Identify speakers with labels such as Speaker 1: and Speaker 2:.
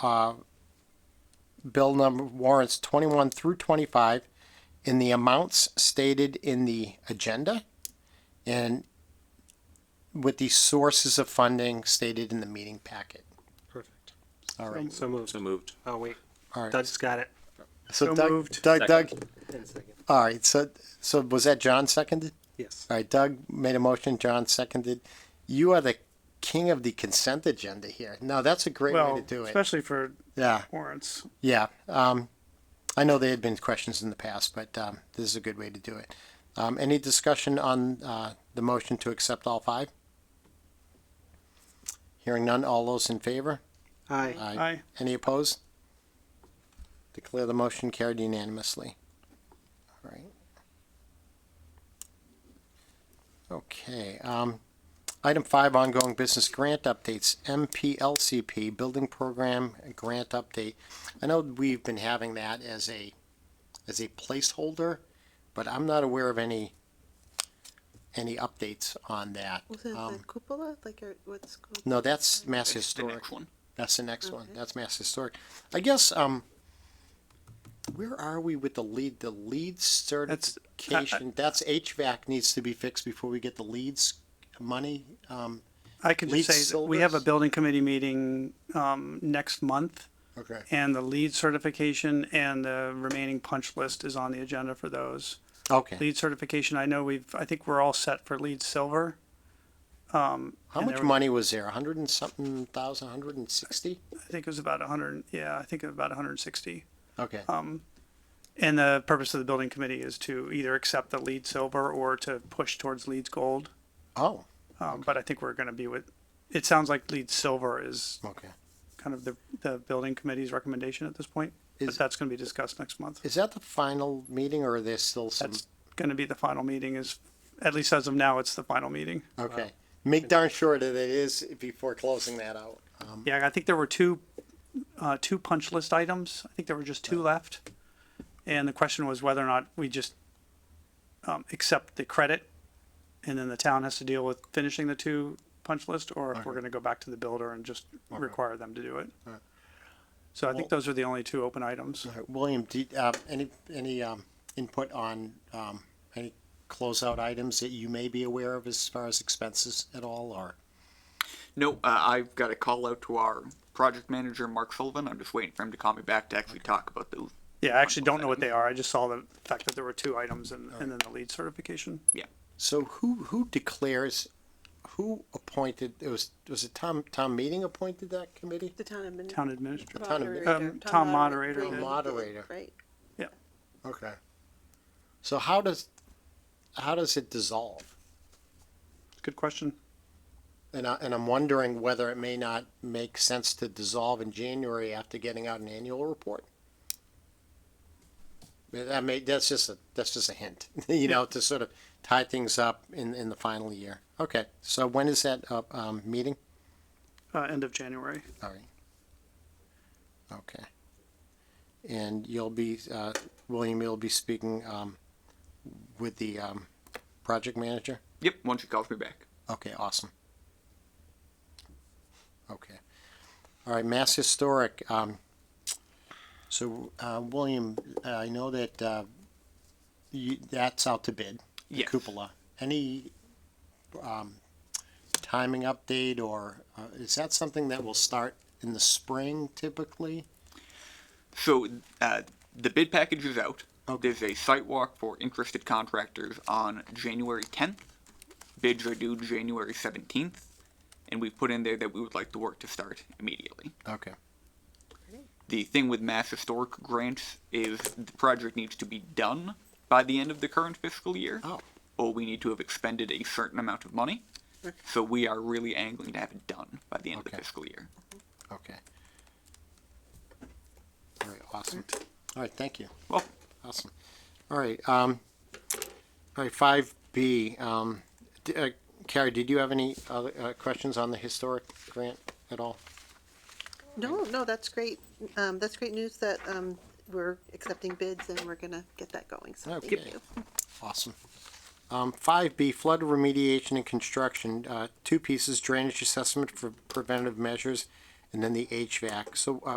Speaker 1: uh, bill number warrants 21 through 25 in the amounts stated in the agenda and with the sources of funding stated in the meeting packet.
Speaker 2: Perfect.
Speaker 1: All right.
Speaker 2: So moved.
Speaker 3: So moved.
Speaker 2: Oh, wait.
Speaker 1: All right.
Speaker 2: Doug's got it.
Speaker 1: So
Speaker 2: So
Speaker 1: Doug,
Speaker 2: moved.
Speaker 1: Doug, Doug,
Speaker 2: In a second.
Speaker 1: all right. So, so was that John seconded?
Speaker 2: Yes.
Speaker 1: All right, Doug made a motion, John seconded. You are the king of the consent agenda here. No, that's a great way
Speaker 4: Well,
Speaker 1: to do it.
Speaker 4: especially for
Speaker 1: Yeah,
Speaker 4: warrants.
Speaker 1: yeah. Um, I know there had been questions in the past, but, um, this is a good way to do it. Um, any discussion on, uh, the motion to accept all five? Hearing none, all those in favor?
Speaker 2: Aye.
Speaker 4: Aye.
Speaker 1: Any opposed? Declare the motion carried unanimously. All right. Okay, um, item five, ongoing business grant updates, MPLCP, Building Program Grant Update. I know we've been having that as a, as a placeholder, but I'm not aware of any, any updates on that.
Speaker 5: Was it
Speaker 1: Um,
Speaker 5: the cupola? Like your, what's called?
Speaker 1: No, that's Mass Historic. That's the next one. That's Mass Historic. I guess, um, where are we with the lead, the lead
Speaker 4: uh,
Speaker 1: certification? That's HVAC needs to be fixed before we get the leads money. Um,
Speaker 4: I could
Speaker 1: Lead
Speaker 4: just say that we have a
Speaker 1: silvers?
Speaker 4: building committee meeting um, next month,
Speaker 1: okay.
Speaker 4: and the lead certification and the remaining punch list is on the agenda for those.
Speaker 1: Okay.
Speaker 4: Lead certification, I know we've, I think we're all set for lead silver. Um,
Speaker 1: How
Speaker 4: and
Speaker 1: much
Speaker 4: there were-
Speaker 1: money was there? A hundred and something thousand, hundred and sixty?
Speaker 4: I think it was about 100, yeah, I think about 160.
Speaker 1: Okay.
Speaker 4: And the purpose of the building committee is to either accept the lead silver or to push towards leads gold.
Speaker 1: Oh,
Speaker 4: Um, But I think we're going to be with, it sounds like lead silver is
Speaker 1: okay.
Speaker 4: kind of the, the building committee's recommendation at this point. But
Speaker 1: Is-
Speaker 4: that's going to be discussed next month.
Speaker 1: Is that the final meeting or are there still some?
Speaker 4: That's going to be the final meeting is, at least as of now, it's the final meeting.
Speaker 1: Okay. Make darn sure that it is before closing that out. Um,
Speaker 4: Yeah, I think there were two, uh, two punch list items. I think there were just two left. And the question was whether or not we just, um, accept the credit. And then the town has to deal with finishing the two punch list or if we're going to go back to the builder and just require them to do it. So I think those are the only two open items.
Speaker 1: All right, William, do, you- uh, any, any, um, input on, um, any closeout items that you may be aware of as far as expenses at all, or?
Speaker 3: No, uh, I've got a call out to our project manager, Mark Sullivan. I'm just waiting for him to call me back to actually talk about those.
Speaker 4: Yeah, I actually don't know what they are. I just saw the fact that there were two items and, and then the lead certification.
Speaker 3: Yeah.
Speaker 1: So who, who declares, who appointed, it was, was it Tom, Tom Meeting appointed that committee?
Speaker 5: The town admin.
Speaker 4: Town administrator.
Speaker 1: town admin-
Speaker 4: Um, town moderator
Speaker 5: right.
Speaker 4: did.
Speaker 1: Moderator.
Speaker 5: Right.
Speaker 1: Okay. So how does, how does it dissolve?
Speaker 4: Good question.
Speaker 1: And I, and I'm wondering whether it may not make sense to dissolve in January after getting out an annual report. But That may, that's just a, that's just a hint, you know, to sort of tie things up in, in the final year. Okay, so when is that, uh, um, meeting?
Speaker 4: Uh, end of January.
Speaker 1: All right. Okay. And you'll be, uh, William, you'll be speaking, um, with the, um, project manager?
Speaker 3: Yep. Once he calls me back.
Speaker 1: Okay, awesome. Okay. All right, Mass Historic, um, so, uh, William, I know that, uh, you, that's out to bid. the
Speaker 3: Yes.
Speaker 1: Cupola. Any, um, timing update or, uh, is that something that will start in the spring typically?
Speaker 3: So uh, the bid package is out. There's a site walk for interested contractors on January 10th. Bids are due January 17th. And we've put in there that we would like the work to start immediately.
Speaker 1: Okay,
Speaker 3: the thing with mass historic grants is the project needs to be done by the end of the current fiscal year,
Speaker 1: Oh.
Speaker 3: or we need to have expended a certain amount of money. So we are really angling to have it done by the end of
Speaker 1: Okay.
Speaker 3: the fiscal year.
Speaker 1: okay. All right, awesome. All right, thank you.
Speaker 3: Well,
Speaker 1: Awesome. All right, um, all right, five B, um, d- uh, Carrie, did you have any other, uh, questions on the historic grant at all?
Speaker 5: No, no, that's great. Um, that's great news that, um, we're accepting bids and we're gonna get that going, so thank
Speaker 1: Okay.
Speaker 5: you.
Speaker 1: Awesome. Um, five B, flood remediation and construction, uh, two pieces, drainage assessment for preventive measures, and then the HVAC. So, uh,